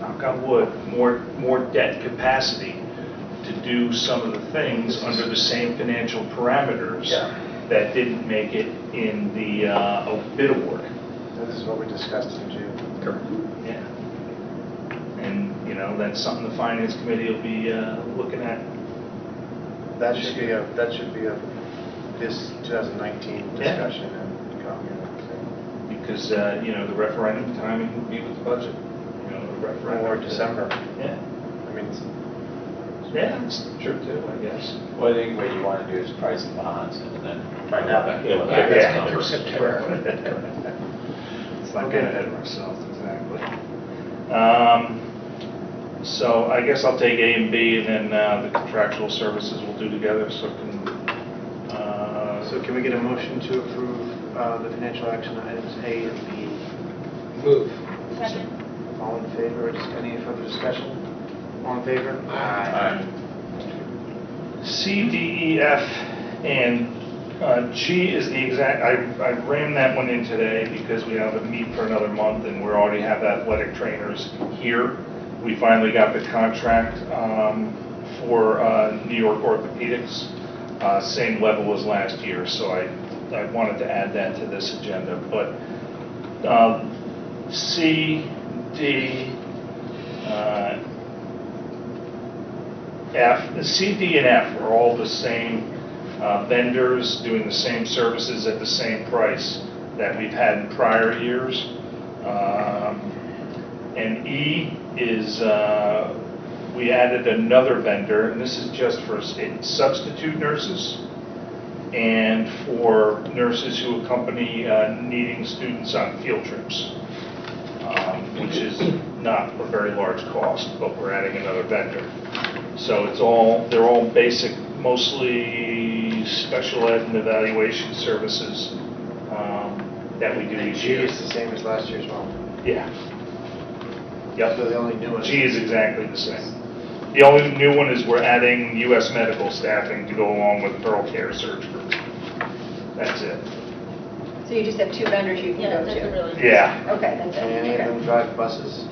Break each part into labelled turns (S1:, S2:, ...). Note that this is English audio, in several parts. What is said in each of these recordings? S1: knock on wood, more, more debt capacity to do some of the things under the same financial parameters
S2: Yeah.
S1: that didn't make it in the uh, bid award.
S2: This is what we discussed in June.
S1: Yeah. And, you know, that's something the finance committee will be uh, looking at.
S2: That should be a, that should be a, this 2019
S1: Yeah.
S2: discussion and comment,
S1: Because, uh, you know, the referendum timing would be with the budget, you know, the
S2: so.
S1: referendum.
S2: or December.
S1: Yeah,
S2: I mean, it's-
S1: yeah, it's true too, I guess.
S3: Well, I think what you want to do is price the bonds and then.
S2: Find out.
S3: back-
S4: Yeah,
S3: back
S4: yeah.
S3: to numbers.
S1: It's not getting ahead of ourselves, exactly. Um, So I guess I'll take A and B, and then uh, the contractual services we'll do together, so can, uh,
S2: so can we get a motion to approve uh, the financial action items A and B?
S5: Move.
S6: Second.
S2: All in favor, Just any further discussion? All in favor? Aye.
S1: C, D, E, F, and uh, G is the exact, I, I ran that one in today because we have a meet for another month and we already have athletic trainers here. We finally got the contract um, for uh, New York Orthopedics, uh, same level as last year, so I, I wanted to add that to this agenda. But um, C, D, uh, F, C, D, and F are all the same uh, vendors doing the same services at the same price that we've had in prior years. Um, And E is, uh, we added another vendor, and this is just for s- substitute nurses and for nurses who accompany uh, needing students on field trips, um, which is not a very large cost, but we're adding another vendor. So it's all, they're all basic, mostly special ed and evaluation services um, that we do
S2: And
S1: each
S2: G
S1: year.
S2: is the same as last year's one.
S1: Yeah.
S2: So
S1: Yep,
S2: the only new one.
S1: G is exactly the same. The only new one is we're adding US medical staffing to go along with Pearl Care Surge Group. That's it.
S7: So you just have two vendors you
S6: Yeah,
S7: can go
S6: that's a
S7: to?
S6: really.
S1: Yeah.
S7: Okay, that's it.
S2: And any of them
S7: Okay.
S2: drive buses?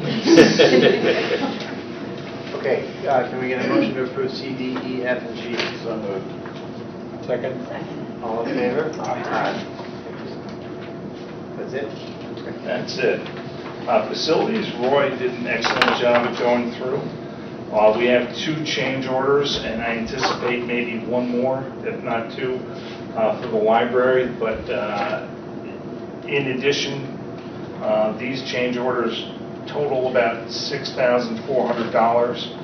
S2: Okay, uh, can we get a motion to approve C, D, E, F, and G? So moved.
S5: Second.
S6: Second.
S2: All in favor?
S1: Aye.
S2: That's it?
S1: That's it. Uh, Facilities, Roy did an excellent job at going through. Uh, We have two change orders, and I anticipate maybe one more, if not two, uh, for the library, but uh, in addition, uh, these change orders total about $6,400.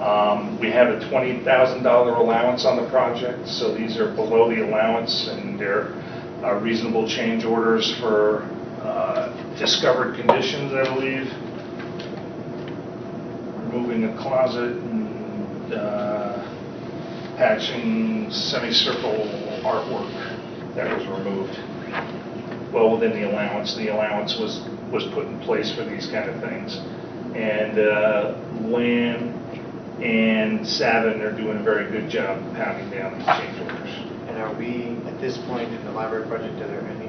S1: Um, We have a $20,000 allowance on the project, so these are below the allowance, and they're uh, reasonable change orders for uh, discovered conditions, I believe, removing a closet and uh, patching semicircle artwork that was removed. Well, within the allowance, the allowance was, was put in place for these kind of things. And uh, Lamb and Savin are doing a very good job pounding down these change orders.
S2: And are we, at this point in the library project, are there any,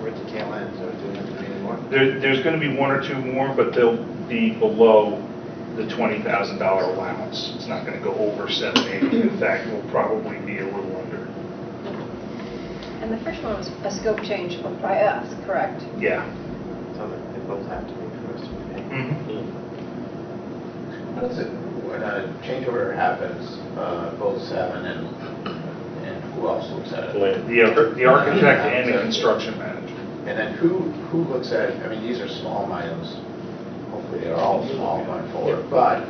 S2: we're at the tail end, so do we have to do any more?
S1: There, there's going to be one or two more, but they'll be below the $20,000 allowance. It's not going to go over 780. In fact, we'll probably be a little under.
S7: And the first one was a scope change by us, correct?
S1: Yeah.
S2: So that they both have to be for us to be.
S1: Mm-hmm.
S3: How does it, when a change order happens, uh, both Seven and, and who else looks at it?
S4: Land.
S1: The ar- the architect and the construction manager.
S3: And then who, who looks at, it? I mean, these are small items, hopefully they're all small going forward, but,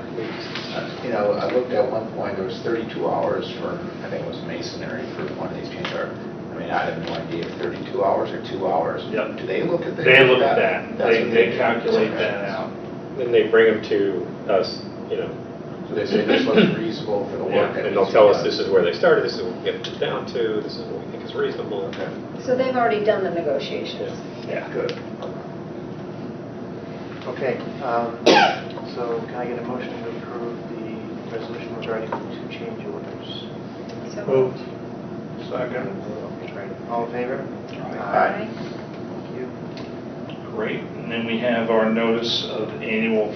S3: you know, I looked at one point, there was 32 hours for, I think it was masonry for one of these change orders. I mean, I have no idea if 32 hours or two hours.
S1: Yep.
S3: Do they look at that?
S1: They look at that.
S3: That's
S1: They,
S3: what
S1: they
S3: do.
S1: calculate
S3: Okay.
S1: that out.
S4: Then they bring them to us, you know,
S3: So they say this looks reasonable for the work. that
S4: and they'll
S3: needs to
S4: tell
S3: be
S4: us
S3: done.
S4: this is where they started, this is what we get it down to, this is what we think is reasonable.
S3: Okay,
S7: So they've already done the negotiations.
S4: Yeah.
S1: Yeah.
S3: good.
S2: Okay, um, so can I get a motion to approve the resolution regarding the two change orders?
S7: So
S2: Second. All in favor?
S3: Aye.
S2: Thank you.
S1: Great. And then we have our notice of annual